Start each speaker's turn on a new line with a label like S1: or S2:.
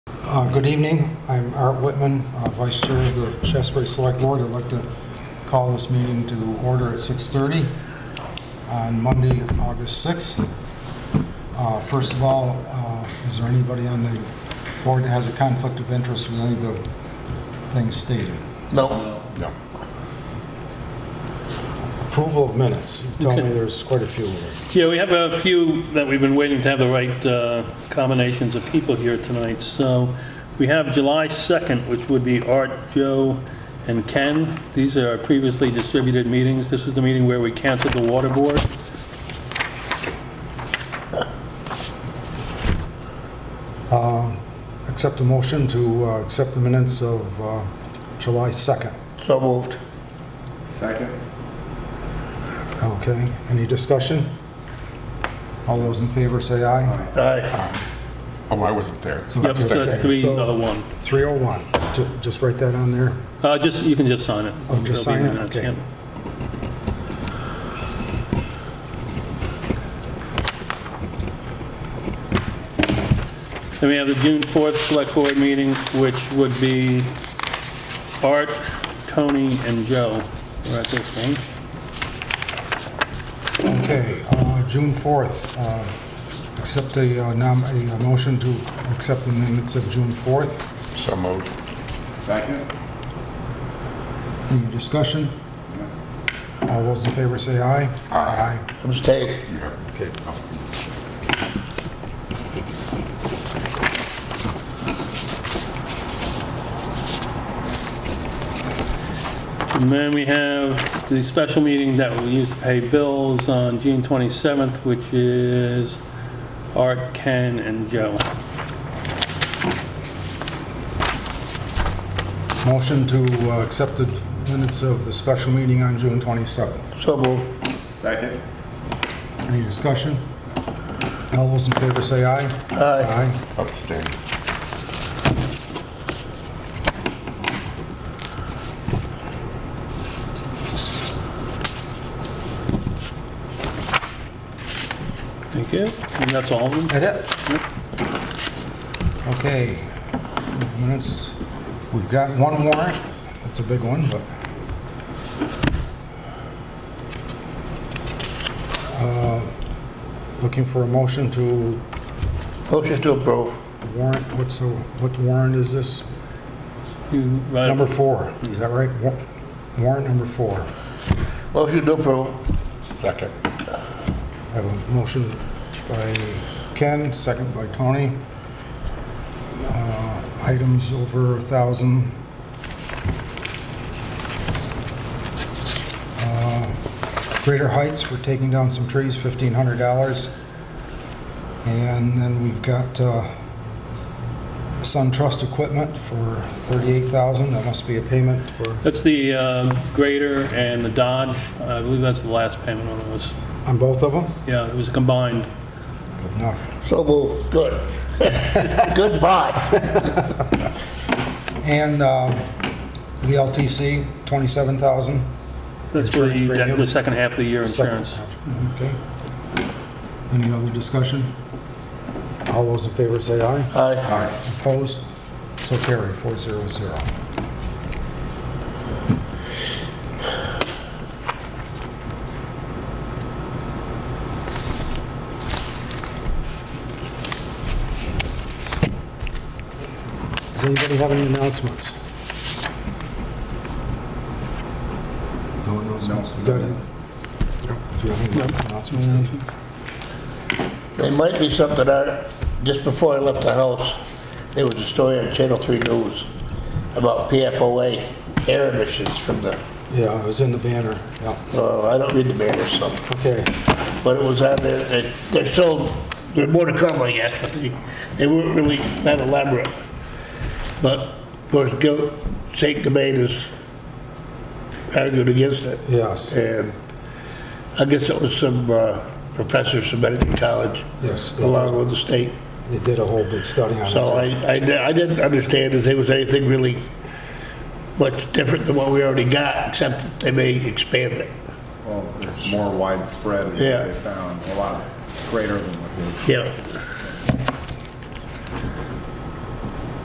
S1: Uh, Good evening. I'm Art Whitman, uh, Vice Chair of the Shasberry Select Board. I'd like to call this meeting to order at 6:30 on Monday, August 6th. Uh, First of all, uh, is there anybody on the board that has a conflict of interest with any of the things stated?
S2: No.
S1: No. Approval of minutes. You tell me
S2: Okay.
S1: there's quite a few of them.
S2: Yeah, we have a few that we've been waiting to have the right uh, combinations of people here tonight. So we have July 2nd, which would be Art, Joe, and Ken. These are our previously distributed meetings. This is the meeting where we canceled the water board.
S1: Accept a motion to uh, accept the minutes of uh, July 2nd.
S3: So moved.
S4: Second?
S1: Okay, any discussion? All those in favor say aye.
S3: Aye.
S4: Oh, I wasn't there.
S1: So
S2: Yep,
S1: that's
S2: so that's three,
S1: So-
S2: another one.
S1: 301, Ju- just write that on there.
S2: Uh, Just, you can just sign it.
S1: Oh, just
S2: It'll
S1: sign
S2: be
S1: it?
S2: minutes,
S1: Okay.
S2: yep. Then we have the June 4th Select Board meeting, which would be Art, Tony, and Joe are at this one.
S1: Okay, uh, June 4th, uh, accept a uh, nom- a motion to accept the minutes of June 4th.
S4: So moved. Second?
S1: Any discussion? All those in favor say aye. Aye.
S3: Abstain.
S1: Okay.
S2: And then we have the special meeting that we used to pay bills on June 27th, which is Art, Ken, and Joe.
S1: Motion to uh, accept the minutes of the special meeting on June 27th.
S3: So moved.
S4: Second?
S1: Any discussion? All those in favor say aye.
S3: Aye.
S1: Aye.
S4: Abstain.
S2: Thank you. And that's all of them?
S1: That it? Okay, minutes, we've got one warrant, that's a big one, but... Uh, Looking for a motion to
S3: Motion to approve.
S1: warrant, what's the, what warrant is this?
S2: You write-
S1: Number four, is that right? Wa- Warrant number four.
S3: Motion to approve.
S4: Second.
S1: I have a motion by Ken, second by Tony. Uh, Items over a 1,000. Uh, Greater Heights for taking down some trees, $1,500. And then we've got uh, Sun Trust Equipment for $38,000. That must be a payment for,
S2: That's the um, grader and the Dodge. I believe that's the last payment on those.
S1: on both of them?
S2: Yeah, it was combined.
S1: Good enough.
S3: So moved. Good. Goodbye.
S1: And uh, the LTC, 27,000.
S2: That's for the,
S1: Insurance
S2: that-
S1: premium.
S2: the second half of the year
S1: Second.
S2: insurance.
S1: Okay. Any other discussion? All those in favor say aye.
S3: Aye.
S1: Opposed? So carried, 400. Does anybody have any announcements? No announcements? You got any? Do you have any announcements? Steve?
S3: There might be something out, just before I left the house, there was a story on Channel 3 News about PFOA air emissions from the,
S1: Yeah, it was in the banner, yeah.
S3: uh, I don't read the banner, so.
S1: Okay.
S3: but it was on there, they- they're still, there's more to come, I guess, but they, they weren't really that elaborate. But, of course, Gil, St. Gobain has argued against it,
S1: Yes,
S3: and I guess it was some uh, professors from Medical College,
S1: yes, they
S3: along with the state.
S1: they did a whole big study on it.
S3: So I, I di- I didn't understand if there was anything really much different than what we already got, except that they may expand it.
S4: Well, it's more widespread than
S3: Yeah.
S4: what they found, a lot greater than what they expected.
S3: Yeah,